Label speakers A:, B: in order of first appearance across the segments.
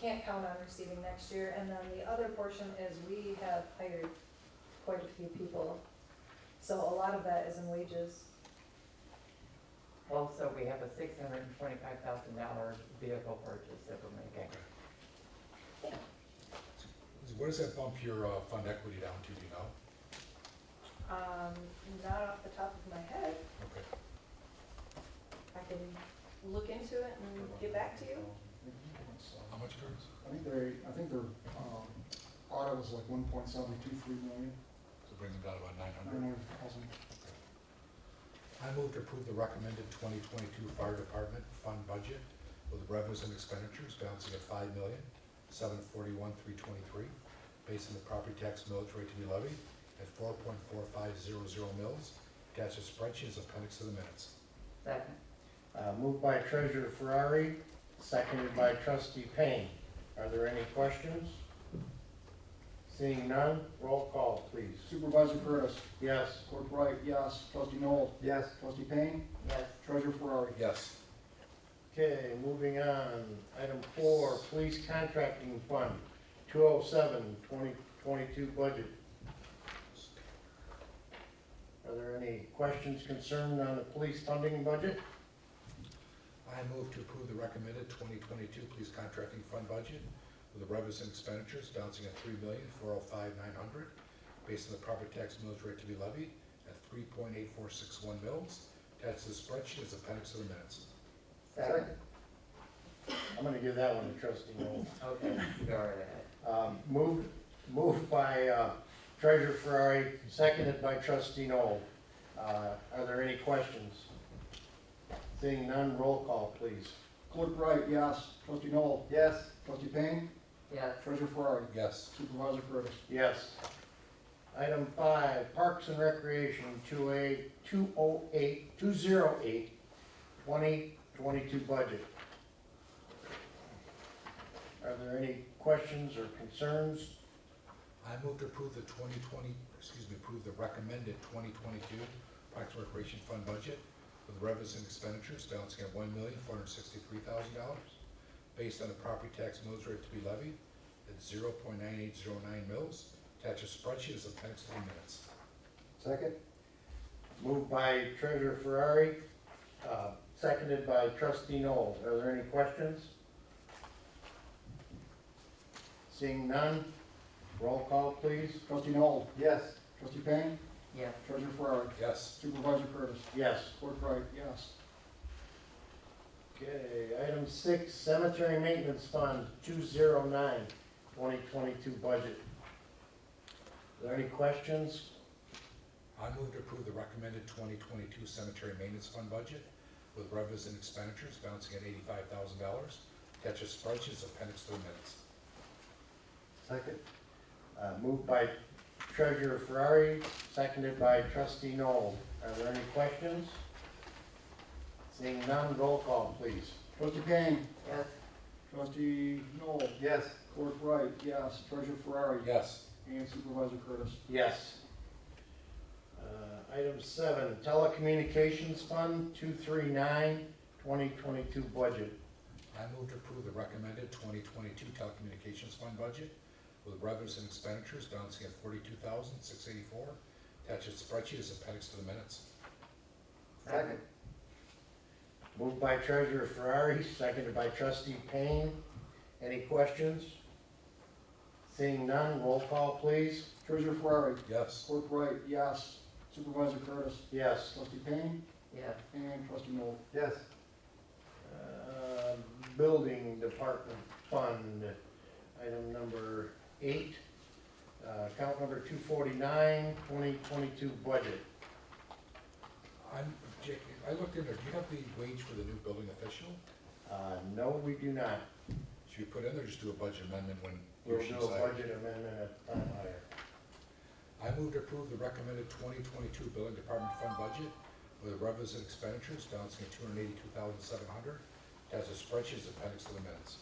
A: can't count on receiving next year. And then the other portion is we have hired quite a few people. So a lot of that is in wages.
B: Also, we have a six hundred and twenty-five thousand dollar vehicle purchase that we're making.
C: So What does that bump your uh, fund equity down to, do you know?
A: Um, not off the top of my head,
C: Okay.
A: I can look into it and get back to you.
C: How much, Curtis?
D: I think they, I think their, um, audit was like one point seven two three million,
C: So it brings them down to about nine
D: nine
C: hundred.
D: hundred thousand.
C: I move to approve the recommended twenty twenty-two fire department fund budget with revenues and expenditures balancing at five million, seven forty-one, three twenty-three, based on the property tax millage rate to be levied at four point four five zero zero mils, attached to spreadsheet as appendix to the minutes.
B: Second,
E: Uh, Moved by Treasurer Ferrari, seconded by Trustee Payne. Are there any questions? Seeing none, roll call, please.
D: Supervisor Curtis,
E: Yes.
D: Clerk Wright, yes, Trustee Noel,
E: Yes.
D: Trustee Payne,
B: yes,
D: Treasurer Ferrari.
C: Yes.
E: Okay, moving on. Item four, Police Contracting Fund, 207, 2022 budget. Are there any questions concerned on the police funding budget?
C: I move to approve the recommended 2022 police contracting fund budget with the revenues and expenditures balancing at three million four hundred five nine hundred, based on the property tax millage rate to be levied at 3.8461 mils, attached to the spreadsheet as appendix to the minutes.
B: second,
E: I'm gonna give that one to Trustee Noel.
B: okay, go right ahead.
E: Um, Moved, moved by uh, Treasurer Ferrari, seconded by Trustee Noel. Uh, Are there any questions? Seeing none, roll call, please.
D: Clerk Wright, yes, Trustee Noel,
E: Yes.
D: Trustee Payne,
B: Yes,
D: Treasurer Ferrari,
C: Yes.
D: Supervisor Curtis.
E: Yes. Item five, Parks and Recreation, 208, 208, 208, 2022 budget. Are there any questions or concerns?
C: I move to approve the 2020, excuse me, approve the recommended 2022 Parks and Recreation Fund budget with revenues and expenditures balancing at $1,463,000 based on the property tax millage rate to be levied at 0.9809 mils. Attach a spreadsheet as appendix to the minutes.
E: Second. Moved by Treasurer Ferrari, uh, seconded by Trustee Noel. Are there any questions? Seeing none, roll call, please.
D: Trustee Noel,
E: Yes.
D: Trustee Payne,
B: yes,
D: Treasurer Ferrari,
C: Yes.
D: Supervisor Curtis.
E: Yes.
D: Clerk Wright, yes,
E: Okay, item six, Cemetery Maintenance Fund, 209, 2022 budget. Are there any questions?
C: I move to approve the recommended 2022 Cemetery Maintenance Fund budget with revenues and expenditures balancing at $85,000. Attach a spreadsheet as appendix to the minutes.
E: Second. Uh, moved by Treasurer Ferrari, seconded by Trustee Noel. Are there any questions? Seeing none, roll call, please.
D: Trustee Payne,
B: yes,
D: Trustee Noel,
E: Yes.
D: Clerk Wright, yes, Treasurer Ferrari,
C: Yes.
D: and Supervisor Curtis.
E: Yes. Uh, item seven, Telecommunications Fund, 239, 2022 budget.
C: I move to approve the recommended 2022 telecommunications fund budget with revenues and expenditures balancing at 42,684. Attached spreadsheet is appendix to the minutes.
B: second,
E: Moved by Treasurer Ferrari, seconded by Trustee Payne. Any questions? Seeing none, roll call, please.
D: Treasurer Ferrari,
C: Yes.
D: Clerk Wright, yes. Supervisor Curtis,
E: Yes.
D: Trustee Payne,
B: yes,
D: and Trustee Noel.
E: Yes. Uh, Building Department Fund, item number eight, uh, account number 249, 2022 budget.
C: I'm, Jake, I looked in there, do you have the wage for the new building official?
E: Uh, No, we do not.
C: Should we put in there, or just do a budget amendment when
E: We'll
C: you're
E: do a budget amendment at the time higher.
C: I move to approve the recommended 2022 building department fund budget with revenues and expenditures balancing at 282,700. Attached spreadsheet is appendix to the minutes.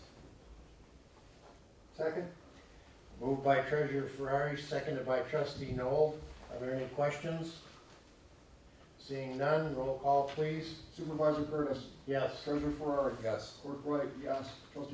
E: Second. Moved by Treasurer Ferrari, seconded by Trustee Noel. Are there any questions? Seeing none, roll call, please.
D: Supervisor Curtis,
E: Yes.
D: Treasurer Ferrari,
C: Yes.
D: Clerk Wright, yes. Trustee